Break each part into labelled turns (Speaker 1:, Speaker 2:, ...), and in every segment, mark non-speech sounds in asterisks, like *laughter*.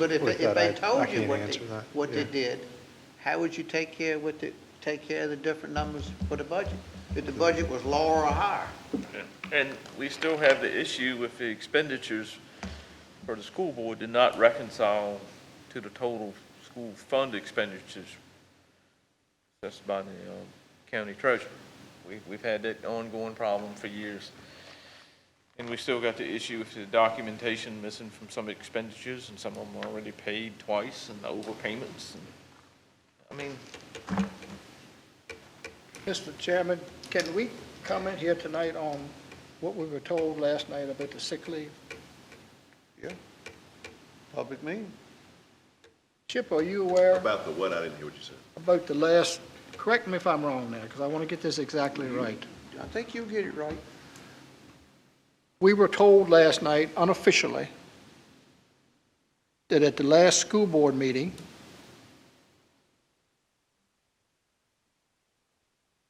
Speaker 1: But if,
Speaker 2: With
Speaker 1: if
Speaker 2: that,
Speaker 1: they
Speaker 2: I- I
Speaker 1: told you
Speaker 2: can't
Speaker 1: what they,
Speaker 2: answer that,
Speaker 1: what they
Speaker 2: yeah.
Speaker 1: did, how would you take care, what the, take care of the different numbers for the budget? If the budget was lower or higher?
Speaker 3: And we still have the issue with the expenditures for the school board did not reconcile to the total school fund expenditures. That's by the um, county treasurer. We, we've had that ongoing problem for years. And we still got the issue with the documentation missing from some expenditures and some of them were already paid twice and overpayments. and- I mean,
Speaker 4: Mr. Chairman, can we comment here tonight on what we were told last night about the sick leave?
Speaker 2: Yeah. Public meeting.
Speaker 4: Chip, are you aware
Speaker 5: About the what, I didn't hear what you said.
Speaker 4: about the last, correct me if I'm wrong now, because I want to get this exactly right.
Speaker 1: I think you'll get it right.
Speaker 4: We were told last night unofficially that at the last school board meeting,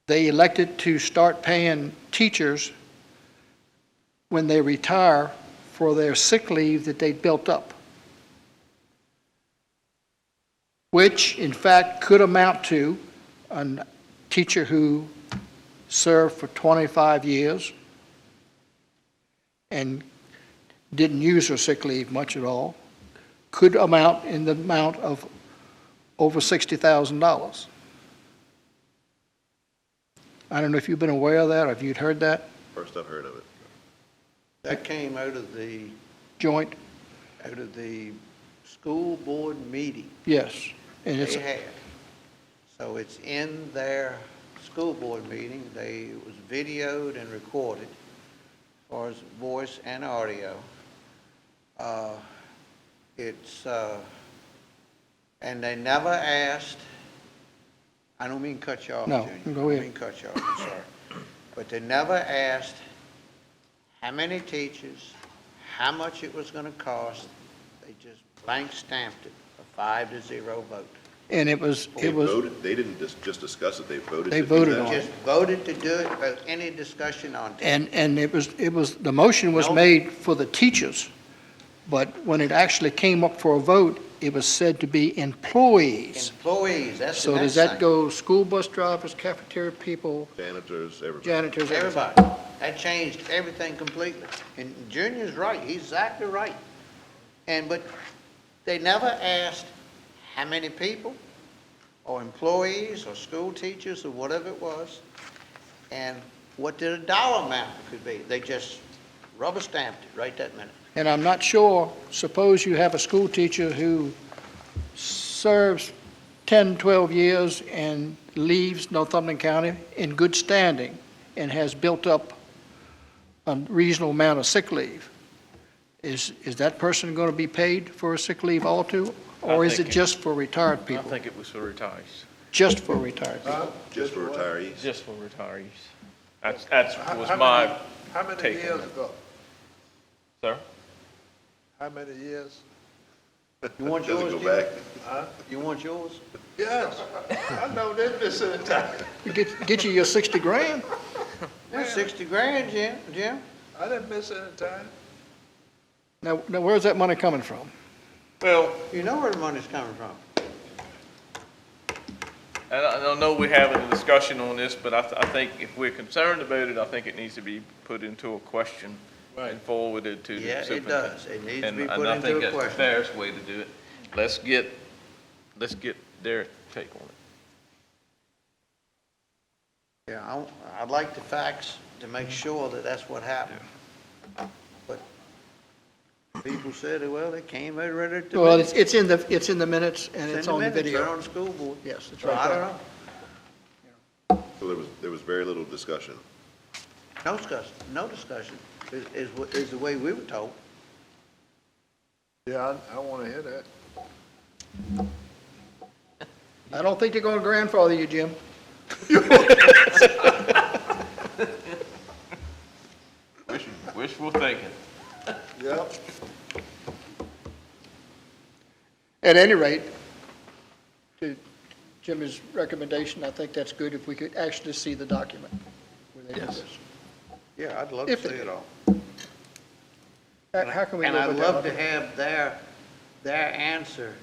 Speaker 4: they elected to start paying teachers when they retire for their sick leave that they built up, which in fact could amount to a teacher who served for 25 years and didn't use her sick leave much at all, could amount in the amount of over $60,000. I don't know if you've been aware of that, or if you'd heard that,
Speaker 5: First I've heard of it.
Speaker 1: That came out of the,
Speaker 4: joint,
Speaker 1: out of the school board meeting
Speaker 4: yes. And it's,
Speaker 1: they had. So it's in their school board meeting, they, it was videoed and recorded, as far as voice and audio. Uh, It's, uh, and they never asked, I don't mean cut you off,
Speaker 4: No,
Speaker 1: Junior.
Speaker 4: go
Speaker 1: I don't
Speaker 4: ahead.
Speaker 1: mean cut you off, I'm sorry. But they never asked how many teachers, how much it was gonna cost. They just blank stamped it, a five to zero vote.
Speaker 4: and it was,
Speaker 5: They
Speaker 4: it was,
Speaker 5: voted- They didn't just, just discuss it, they voted.
Speaker 4: They
Speaker 5: to do
Speaker 4: voted
Speaker 5: that.
Speaker 4: on it.
Speaker 1: Just voted to do it without any discussion on it.
Speaker 4: and, and it was, it was, the motion was
Speaker 1: No.
Speaker 4: made for the teachers, but when it actually came up for a vote, it was said to be employees.
Speaker 1: Employees, that's the
Speaker 4: So
Speaker 1: next
Speaker 4: does
Speaker 1: thing.
Speaker 4: that go school bus drivers, cafeteria people,
Speaker 5: Janitors, everybody.
Speaker 4: janitors, everybody?
Speaker 1: Everybody. That changed everything completely. And Junior's right, he's exactly right. And, but they never asked how many people, or employees, or school teachers, or whatever it was, and what the dollar amount could be. They just rubber stamped it right that minute.
Speaker 4: And I'm not sure, suppose you have a school teacher who serves 10, 12 years and leaves Northumberland County in good standing and has built up a reasonable amount of sick leave. Is, is that person going to be paid for a sick leave all too? Or
Speaker 3: I
Speaker 4: is it
Speaker 3: think it-
Speaker 4: just for retired
Speaker 3: I
Speaker 4: people?
Speaker 3: think it was for retirees,
Speaker 4: Just for retired people?
Speaker 5: Just for retirees.
Speaker 3: just for retirees. That's, that's,
Speaker 6: How-
Speaker 3: was
Speaker 6: how
Speaker 3: my
Speaker 6: many- How many
Speaker 3: take on
Speaker 6: years
Speaker 3: that.
Speaker 6: ago?
Speaker 3: Sir?
Speaker 6: How many years?
Speaker 1: You want
Speaker 5: Doesn't
Speaker 1: yours,
Speaker 5: go
Speaker 1: Junior?
Speaker 5: back.
Speaker 1: You want yours?
Speaker 6: Yes, *laughs* I know they've been sitting down.
Speaker 4: Get, get you your 60 grand?
Speaker 1: Well, Sixty grand, Jim, Jim?
Speaker 6: I didn't miss any time.
Speaker 4: Now, now where's that money coming from?
Speaker 3: Well,
Speaker 1: You know where the money's coming from.
Speaker 3: and I don't know we have a discussion on this, but I, th- I think if we're concerned about it, I think it needs to be put into a question and forwarded to the
Speaker 1: Yeah, it
Speaker 3: superintendent.
Speaker 1: does. It needs to
Speaker 3: And-
Speaker 1: be
Speaker 3: and
Speaker 1: put
Speaker 3: I
Speaker 1: into
Speaker 3: think
Speaker 1: a
Speaker 3: that's the
Speaker 1: question.
Speaker 3: Fairest way to do it. Let's get, let's get their take on it.
Speaker 1: Yeah, I, don't- I'd like the facts to make sure that that's what happened. But people said, well, they came out right at the.
Speaker 4: Well,
Speaker 1: minute.
Speaker 4: it's, it's in the, it's in the minutes and it's
Speaker 1: in
Speaker 4: on the
Speaker 1: minutes,
Speaker 4: video.
Speaker 1: Right on the school board.
Speaker 4: Yes, it's
Speaker 1: So
Speaker 4: right
Speaker 1: I
Speaker 4: there.
Speaker 1: don't know.
Speaker 5: So there was, there was very little discussion.
Speaker 1: No discussion, no discussion is, is, what- is the way we were told.
Speaker 6: Yeah, I, I want to hear that.
Speaker 4: I don't think they're going to grandfather you, Jim.
Speaker 3: Wishful- Wishful thinking.
Speaker 6: Yep.
Speaker 4: At any rate, to Jimmy's recommendation, I think that's good if we could actually see the document. where they did this.
Speaker 1: Yeah, I'd love
Speaker 4: to If see it-
Speaker 1: all.
Speaker 4: How how can we
Speaker 1: And
Speaker 4: live
Speaker 1: I'd
Speaker 4: with
Speaker 1: love
Speaker 4: that?
Speaker 1: to have their their answer